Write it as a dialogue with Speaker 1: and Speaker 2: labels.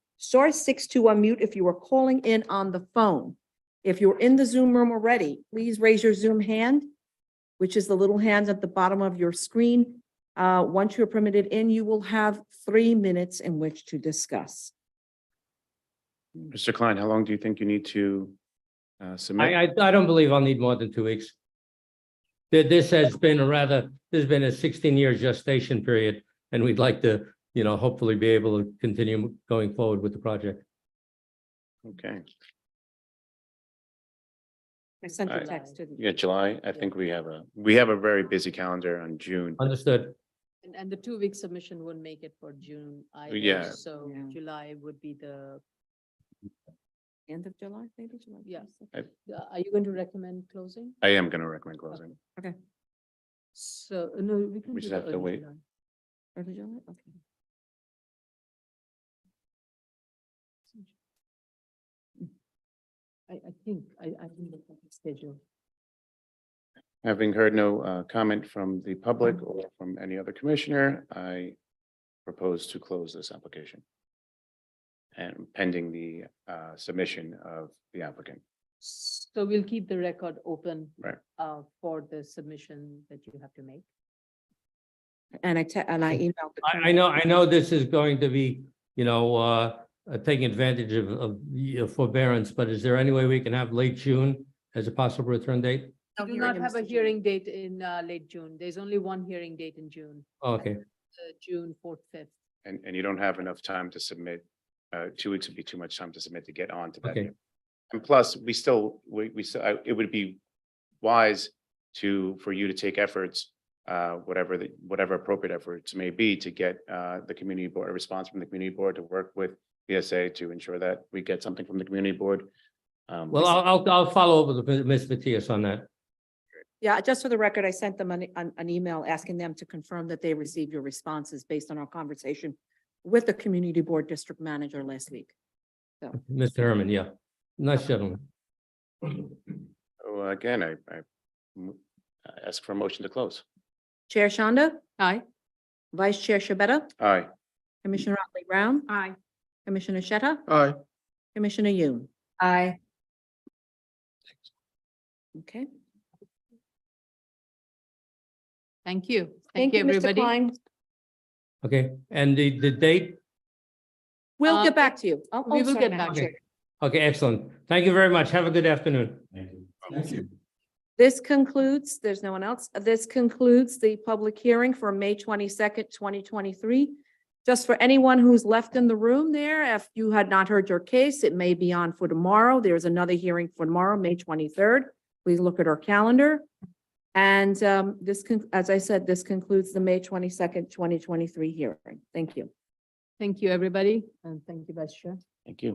Speaker 1: Star six to unmute if you are calling in on the phone. If you're in the Zoom room already, please raise your Zoom hand, which is the little hand at the bottom of your screen. Uh, once you're permitted in, you will have three minutes in which to discuss.
Speaker 2: Mr. Klein, how long do you think you need to uh, submit?
Speaker 3: I, I, I don't believe I'll need more than two weeks. Th- This has been a rather, there's been a sixteen-year gestation period, and we'd like to, you know, hopefully be able to continue going forward with the project.
Speaker 2: Okay,
Speaker 1: I sent a
Speaker 2: I-
Speaker 1: text to the
Speaker 2: yeah, July, I think we have a, we have a very busy calendar on June.
Speaker 3: Understood.
Speaker 4: And, and the two-week submission wouldn't make it for June
Speaker 2: Yeah.
Speaker 4: either, so
Speaker 1: Yeah.
Speaker 4: July would be the,
Speaker 1: end of July, maybe July.
Speaker 4: Yeah.
Speaker 1: 22nd.
Speaker 4: the- are you going to recommend closing?
Speaker 2: I am going to recommend closing.
Speaker 4: So, uh, no, we can.
Speaker 2: We just
Speaker 4: do the
Speaker 2: have to
Speaker 4: early
Speaker 2: wait.
Speaker 4: July.
Speaker 1: Early July, okay.
Speaker 4: I, I think, I, I think the schedule.
Speaker 2: Having heard no uh, comment from the public or from any other commissioner, I propose to close this application. And pending the uh, submission of the applicant.
Speaker 4: So we'll keep the record open.
Speaker 2: Right.
Speaker 4: Uh, for the submission that you have to make.
Speaker 1: And I, te- and I emailed. the
Speaker 3: I, I know, I know this is going to be, you know, uh, uh, taking advantage of, of the forbearance, but is there any way we can have late June as a possible return date?
Speaker 1: No
Speaker 4: We do
Speaker 1: hearing
Speaker 4: not
Speaker 1: in
Speaker 4: have a
Speaker 1: Mr. June.
Speaker 4: hearing date in, uh, late June. There's only one hearing date in June,
Speaker 3: Okay,
Speaker 4: uh, June fourth, fifth.
Speaker 2: And, and you don't have enough time to submit, uh, two weeks would be too much time to submit to get on to that.
Speaker 3: Okay.
Speaker 2: And plus, we still, we, we, still- I- it would be wise to, for you to take efforts, uh, whatever the, whatever appropriate efforts may be to get, uh, the community board, a response from the community board to work with PSA to ensure that we get something from the community board. Um,
Speaker 3: well, I'll, I'll, I'll follow up with Ms. Matias on that.
Speaker 1: Yeah, just for the record, I sent them an, an, an email asking them to confirm that they received your responses based on our conversation with the community board district manager last week.
Speaker 3: Mr. Herman, yeah. Nice gentleman.
Speaker 2: so uh, Again, I, I mm, I ask for a motion to close.
Speaker 1: Chair Shonda,
Speaker 4: Aye.
Speaker 1: Vice Chair Shabeta,
Speaker 2: Aye.
Speaker 1: Commissioner Otley Brown,
Speaker 4: Aye.
Speaker 1: Commissioner Shetta,
Speaker 2: Aye.
Speaker 1: Commissioner Yoon.
Speaker 4: Aye.
Speaker 1: Okay.
Speaker 4: Thank you. Thank you,
Speaker 1: Mr.
Speaker 4: everybody.
Speaker 1: Klein.
Speaker 3: Okay, and the, the date?
Speaker 1: We'll
Speaker 4: Uh,
Speaker 1: get back to you. Oh,
Speaker 4: we
Speaker 1: oh,
Speaker 4: will
Speaker 1: sorry,
Speaker 4: get
Speaker 1: Madam
Speaker 4: back to
Speaker 1: Chair.
Speaker 3: Okay, okay, excellent. Thank you very much. Have a good afternoon.
Speaker 5: Thank you.
Speaker 1: This concludes, there's no one else. This concludes the public hearing for May twenty-second, twenty twenty-three. Just for anyone who's left in the room there, if you had not heard your case, it may be on for tomorrow. There's another hearing for tomorrow, May twenty-third. Please look at our calendar. And um, this, con- as I said, this concludes the May twenty-second, twenty twenty-three hearing. Thank you.
Speaker 4: Thank you, everybody, and thank you, Vice Chair.
Speaker 2: Thank you.